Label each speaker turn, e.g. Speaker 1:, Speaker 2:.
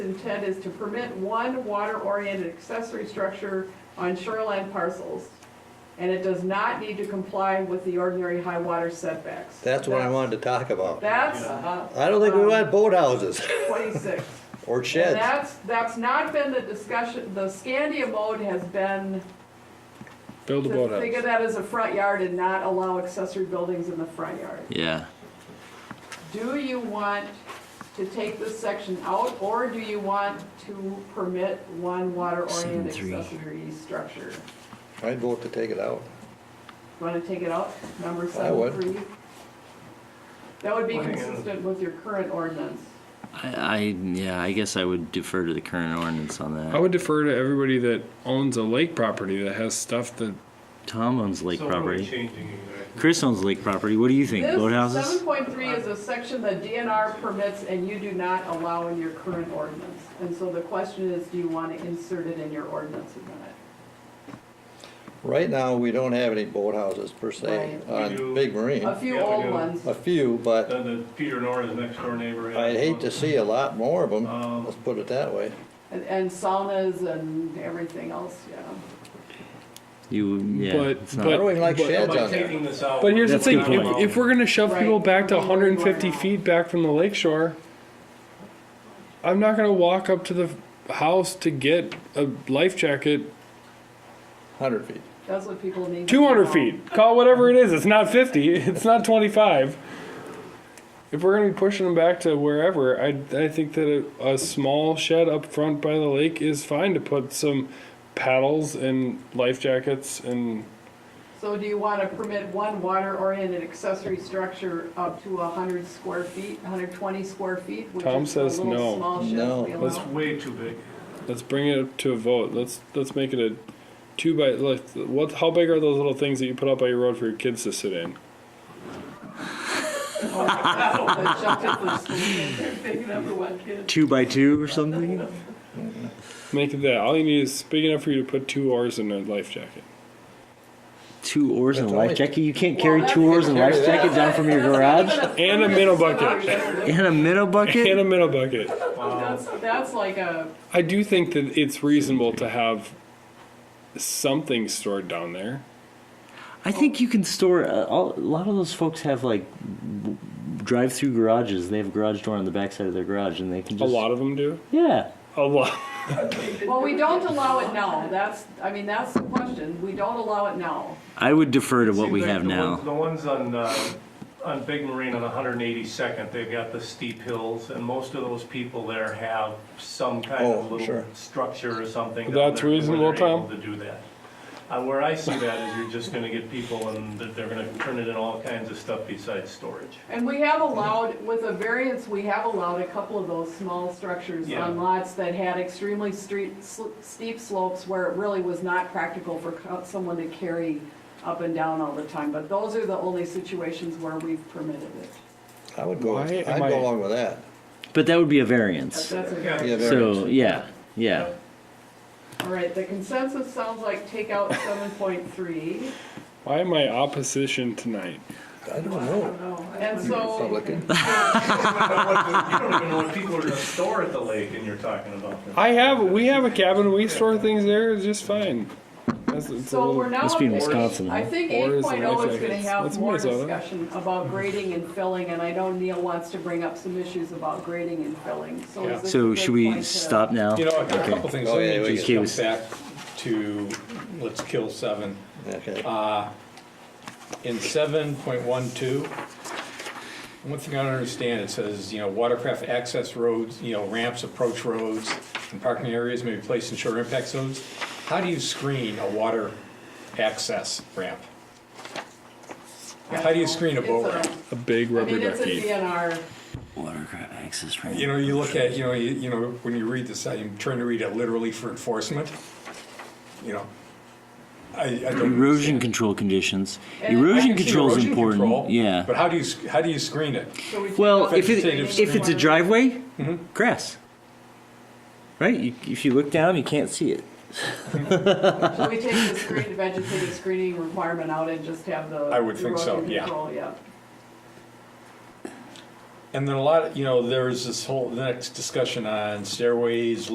Speaker 1: intent is to permit one water-oriented accessory structure on shoreline parcels, and it does not need to comply with the ordinary high water setbacks.
Speaker 2: That's what I wanted to talk about.
Speaker 1: That's, uh.
Speaker 2: I don't think we
Speaker 1: um,
Speaker 2: want boathouses
Speaker 1: Twenty-six.
Speaker 2: or
Speaker 1: And
Speaker 2: sheds.
Speaker 1: that's, that's not been the discussion, the Scandia mode has been
Speaker 3: Build a
Speaker 1: to think of
Speaker 3: boathouse.
Speaker 1: that as a front yard and not allow accessory buildings in the front yard.
Speaker 4: Yeah.
Speaker 1: Do you want to take this section out, or do you want to permit one water-oriented
Speaker 4: Seven, three.
Speaker 1: accessory structure?
Speaker 2: I'd vote to take it out.
Speaker 1: Want to take it out, number
Speaker 2: would.
Speaker 1: seven, three? That would be
Speaker 5: Why not?
Speaker 1: consistent with your current ordinance.
Speaker 4: I, I yeah, I guess I would defer to the current ordinance on
Speaker 3: I
Speaker 4: that.
Speaker 3: would defer to everybody that owns a lake property that has stuff that
Speaker 4: Tom owns lake
Speaker 5: So what are we
Speaker 4: property.
Speaker 5: changing exactly?
Speaker 4: Chris owns lake property. What do you think?
Speaker 1: This
Speaker 4: Boathouses?
Speaker 1: seven point three is a section that DNR permits and you do not allow in your current ordinance. And so the question is, do you want to insert it in your ordinance amendment?
Speaker 2: Right now, we don't have any boathouses per se
Speaker 1: Right.
Speaker 5: We
Speaker 2: on
Speaker 5: do.
Speaker 2: Big
Speaker 1: A
Speaker 2: Marine.
Speaker 1: few
Speaker 5: Yeah, we
Speaker 1: old
Speaker 5: do.
Speaker 1: ones.
Speaker 2: A few, but
Speaker 5: Then the Peter Nora's next door neighbor.
Speaker 2: I'd hate to see a lot more of them,
Speaker 5: Um,
Speaker 2: let's put it that way.
Speaker 1: And, and saunas and everything else, yeah.
Speaker 4: You yeah.
Speaker 3: But-
Speaker 4: it's not-
Speaker 2: I don't even like
Speaker 3: but-
Speaker 2: sheds
Speaker 5: By
Speaker 2: on there.
Speaker 5: taking this out.
Speaker 3: But here's the
Speaker 4: That's a
Speaker 3: thing,
Speaker 4: good
Speaker 3: if,
Speaker 4: point.
Speaker 3: if we're gonna shove people
Speaker 1: Right.
Speaker 3: back to
Speaker 1: People wouldn't
Speaker 3: 150
Speaker 1: want it.
Speaker 3: feet back from the lake shore, I'm not gonna walk up to the house to get a life jacket
Speaker 2: Hundred feet.
Speaker 1: That's what people need. to
Speaker 3: 200
Speaker 1: know.
Speaker 3: feet. Call it whatever it is. It's not 50. It's not 25. If we're gonna be pushing them back to wherever, I, I think that a, a small shed up front by the lake is fine to put some paddles and life jackets and
Speaker 1: So do you want to permit one water-oriented accessory structure up to hundred square feet, hundred twenty square feet? which
Speaker 3: Tom
Speaker 1: is the
Speaker 3: says
Speaker 1: little
Speaker 3: no.
Speaker 1: small sheds
Speaker 2: No.
Speaker 1: we
Speaker 5: That's
Speaker 1: allow?
Speaker 5: way too big.
Speaker 3: Let's bring it up to a vote. Let's let's make it a two by like what? How big are those little things that you put up by your road for your kids to sit in?
Speaker 1: The shelters for students, big number one kid.
Speaker 4: two by two or something.
Speaker 3: Make it that. All you need is big enough for you to put two oars in a life jacket.
Speaker 4: Two oars and a
Speaker 2: That's
Speaker 4: life
Speaker 2: only-
Speaker 4: jacket. You can't
Speaker 1: Well,
Speaker 4: carry
Speaker 1: that's-
Speaker 4: two oars and a life
Speaker 2: Carry
Speaker 4: jacket down from your garage
Speaker 3: And a minnow bucket.
Speaker 4: and a minnow
Speaker 3: And
Speaker 4: bucket.
Speaker 3: a minnow bucket.
Speaker 1: That's, that's like a,
Speaker 3: I do think that it's reasonable to have something stored down there.
Speaker 4: I think you can store. Uh, all, a lot of those folks have like w- drive-through garages. They have a garage door on the backside of their garage, and they can
Speaker 3: A
Speaker 4: just
Speaker 3: lot of them do.
Speaker 4: Yeah.
Speaker 3: A lot.
Speaker 1: well, we don't allow it now, that's, I mean, that's the question, we don't allow it now.
Speaker 4: I would defer to what
Speaker 5: Seems
Speaker 4: we
Speaker 5: like
Speaker 4: have
Speaker 5: the
Speaker 4: now.
Speaker 5: ones- The ones on, uh, on Big Marine on 182nd, they've got the steep hills, and most of those people there have some kind
Speaker 2: Oh,
Speaker 5: of
Speaker 2: sure.
Speaker 5: little structure or something. down
Speaker 3: That's
Speaker 5: there where
Speaker 3: reasonable,
Speaker 5: they're able
Speaker 3: Tom.
Speaker 5: To do that. Uh, Where I see that is you're just gonna get people and that they're gonna turn it in all kinds of stuff besides storage.
Speaker 1: And we have allowed, with a variance, we have allowed a couple of those small structures
Speaker 5: Yeah.
Speaker 1: on lots that had extremely street, sl- steep slopes where it really was not practical for co- someone to carry up and down all the time, but those are the only situations where we've permitted it.
Speaker 2: I would go,
Speaker 3: Why
Speaker 2: I'd
Speaker 3: am I-
Speaker 2: go along with that.
Speaker 4: But that would be a
Speaker 1: But
Speaker 4: variance.
Speaker 1: That's
Speaker 5: Yeah.
Speaker 1: a,
Speaker 2: Yeah,
Speaker 4: So
Speaker 2: variance.
Speaker 4: yeah, yeah.
Speaker 1: all right, the consensus sounds like take out seven point three,
Speaker 3: Why am I opposition tonight?
Speaker 2: I don't know.
Speaker 1: and so,
Speaker 2: Republican.
Speaker 5: You don't even know what people are gonna store at the lake and you're talking about this.
Speaker 3: I have. We have a cabin. We store things there. It's just fine. That's, it's a
Speaker 1: so
Speaker 3: little-
Speaker 1: we're now.
Speaker 4: Must be in
Speaker 1: up to-
Speaker 4: Wisconsin.
Speaker 1: I think
Speaker 3: Or
Speaker 1: eight oh
Speaker 3: is it
Speaker 1: is
Speaker 3: like-
Speaker 1: gonna have
Speaker 3: That's
Speaker 1: more
Speaker 3: Minnesota.
Speaker 1: discussion about grading and filling, and I know Neil wants to bring up some issues about grading and filling, so
Speaker 3: Yeah.
Speaker 1: is this a
Speaker 4: So
Speaker 1: good
Speaker 4: should we
Speaker 1: point to-
Speaker 4: stop now?
Speaker 6: You know, a couple things,
Speaker 2: Oh,
Speaker 6: let
Speaker 2: yeah, we
Speaker 6: me just
Speaker 4: can-
Speaker 6: jump back to, let's kill seven.
Speaker 2: Okay.
Speaker 6: In seven point one two, one thing I don't understand, it says, you know, watercraft access roads, you know, ramps, approach roads, and parking areas may be placed in shore impact zones. How do you screen a water access ramp? How do you screen a boat ramp?
Speaker 1: It's
Speaker 3: a big
Speaker 1: a- I
Speaker 3: rubber
Speaker 1: mean, it's a
Speaker 3: ducky.
Speaker 1: DNR,
Speaker 4: Watercraft access ramp.
Speaker 6: You know, you look at, you know, you, you know, when you read this, I'm trying to read it literally for enforcement, you know. I, I don't
Speaker 4: Erosion
Speaker 6: understand.
Speaker 4: control conditions.
Speaker 1: And
Speaker 6: I
Speaker 4: Erosion
Speaker 6: can see
Speaker 4: control is
Speaker 6: erosion
Speaker 4: important,
Speaker 6: control, But
Speaker 4: yeah.
Speaker 6: how do you, sc- how do you screen it?
Speaker 1: so we. take
Speaker 4: Well,
Speaker 1: out
Speaker 4: if it,
Speaker 6: Vegetative
Speaker 4: if it's a
Speaker 1: screen.
Speaker 4: driveway,
Speaker 6: Mm-hmm.
Speaker 4: grass. Right, you- if you look down, you can't see it.
Speaker 1: Should we take the screen, vegetative screening requirement out and just have the.
Speaker 6: I would think so,
Speaker 1: erosion
Speaker 6: yeah.
Speaker 1: control, yeah.
Speaker 6: And then a lot, you know, there's this whole, the next discussion on stairways,